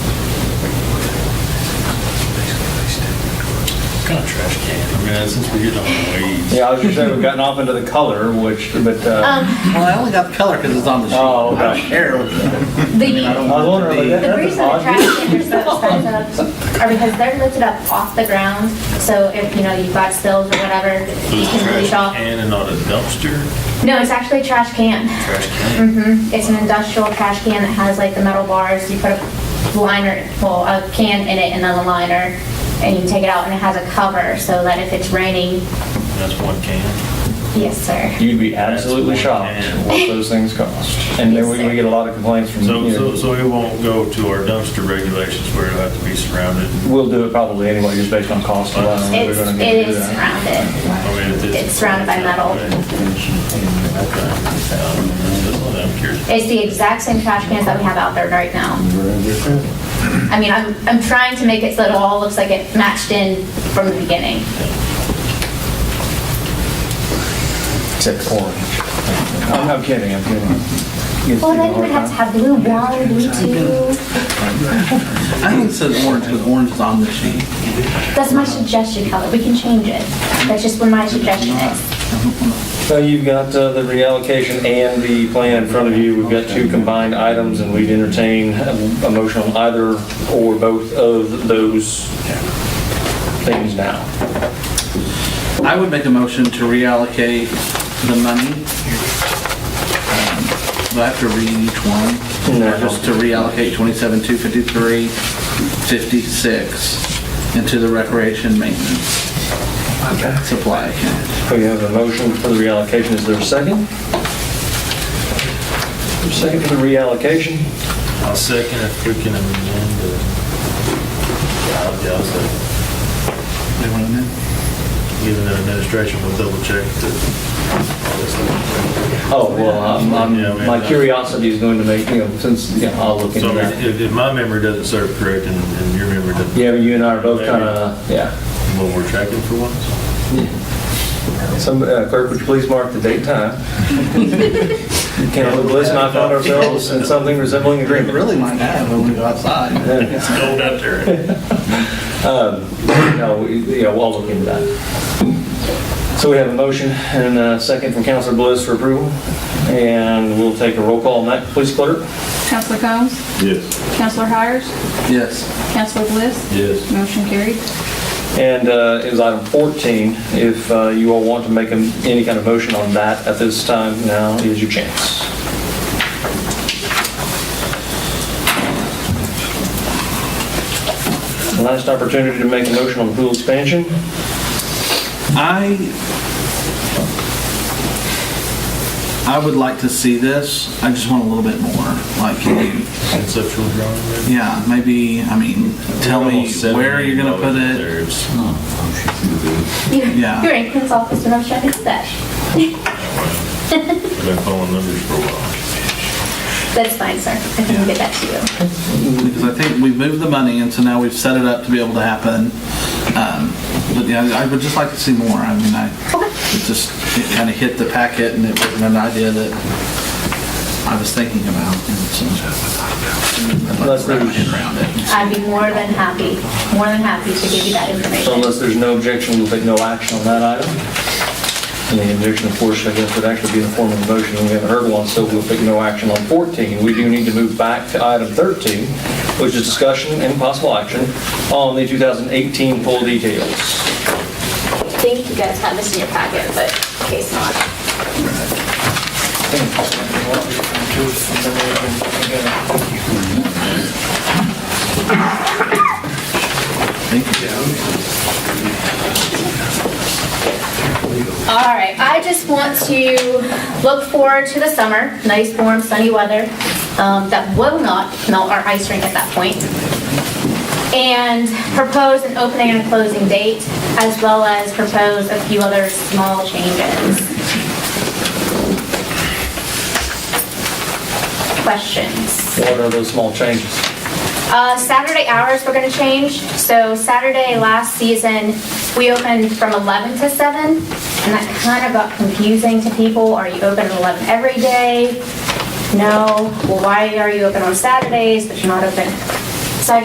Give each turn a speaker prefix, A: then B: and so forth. A: kind of trash can? I mean, since we're getting off the weeds.
B: Yeah, I was gonna say, we've gotten off into the color, which, but, uh,
C: Um,
A: Well, I only got the color because it's on the sheet.
B: Oh, okay.
A: I don't care. what the- I
C: The,
B: I was wondering, like, that-
C: the
B: that's
C: reason the
B: odd.
C: trash cans are so expensive are because they're lifted up off the ground, so if, you know, you've got spills or whatever, you
A: It's a
C: can
A: trash
C: reach off.
A: can and not a dumpster.
C: No, it's actually a trash can.
A: Trash can.
C: hmm It's an industrial trash can that has like the metal bars, you put a liner, well, a can in it and then a liner, and you take it out and it has a cover, so that if it's raining,
A: That's one can.
C: yes, sir.
B: you'd be absolutely shocked at what those things cost. And then we we get a lot of complaints from,
A: So,
B: you
A: so,
B: know,
A: so it won't go to our dumpster regulations where it'll have to be surrounded.
B: we'll do it probably anyway, just based on cost alone. We're
C: It's,
B: gonna need
C: it
B: to do
C: is
B: that.
C: surrounded.
A: I mean, if
C: It's surrounded by metal.
A: Okay. Um, I'm curious.
C: It's the exact same trash cans that we have out there right now. I mean, I'm, I'm trying to make it so that it all looks like it matched in from the beginning.
B: Except orange. I'm I'm kidding, I'm kidding. You
C: Well,
B: see the
C: then you
B: hard
C: would have
B: time?
C: to have blue one, blue two.
D: I think it says orange because orange is on the sheet.
C: That's my suggestion color. We can change it. That's just what my suggestion is.
B: So you've got uh, the reallocation and the plan in front of you. We've got two combined items, and we'd entertain a motion on either or both of those things now.
D: I would make a motion to reallocate the money. Um, Do I have to read each one?
B: No.
D: Or Just to reallocate 27,253.56 into the recreation maintenance
B: Okay.
D: supply account.
B: We have a motion for the reallocation. Is there a second? Second for the reallocation?
A: I'll second if we can amend the. Yeah, I'll- yeah, uh, I'll second.
D: Do you want to know?
A: Even the administration will double check that.
B: Oh, well, I'm-
A: Yeah,
B: I'm-
A: we-
B: my curiosity is going to make, you know, since, yeah, I'll look
A: So I
B: into
A: mean,
B: that.
A: if, if my memory doesn't serve correct and, and your memory doesn't,
B: Yeah, but you and I are both kind of, yeah.
A: well, we're tracking for once.
B: Some, uh, clerk, would you please mark the date time? Can we listen, I found ourselves in something resembling
D: It
B: agreement.
D: really might have when we go outside.
A: It's cold out there.
B: No, we- yeah, we'll look into that. So we have a motion and a second from Counselor Bliss for approval, and we'll take a roll call on that, please clerk.
E: Counselor Combs?
A: Yes.
E: Counselor Hires?
D: Yes,
E: Counselor Bliss?
A: Yes.
E: Motion carried.
B: And uh, it was item 14, if uh, you all want to make a- any kind of motion on that at this time, now is your chance. Last opportunity to make a motion on pool expansion.
D: I, I would like to see this, I just want a little bit more, like, can you
A: Conceptual drawing. maybe?
D: Yeah, maybe, I mean, tell me
A: Almost seven
D: where you're gonna put it.
A: reserves.
C: You-
D: Yeah.
C: You're in Clint's office when I was trying to do that.
A: I've been following numbers for a while.
C: That's fine, sir. I can get that to you.
D: Because I think we moved the money and so now we've set it up to be able to happen. Um, But yeah, I would just like to see more. I mean, I, it just, it kinda hit the packet and it wasn't an idea that I was thinking about. and so I'd like
B: Unless
D: to wrap my
B: there's-
D: head around it.
C: I'd be more than happy, more than happy to give you that
B: So
C: information.
B: unless there's no objection, we'll take no action on that item. And the objection, of course, I guess would actually be in the form of a motion, and we haven't heard one, so we'll take no action on 14. We do need to move back to item 13, which is discussion and possible action on the 2018 pool details.
C: I think you guys have this in your packet, but in case not.
D: Thank you.
C: All right, I just want to look forward to the summer, nice, warm, sunny weather um, that will not melt our ice rink at that point. And propose an opening and closing date, as well as propose a few other small changes. Questions?
B: What are those small changes?
C: Uh, Saturday hours we're gonna change. So Saturday last season, we opened from 11 to 7, and that kind of got confusing to people. Are you open at 11 every day? No. Well, why are you open on Saturdays but you're not open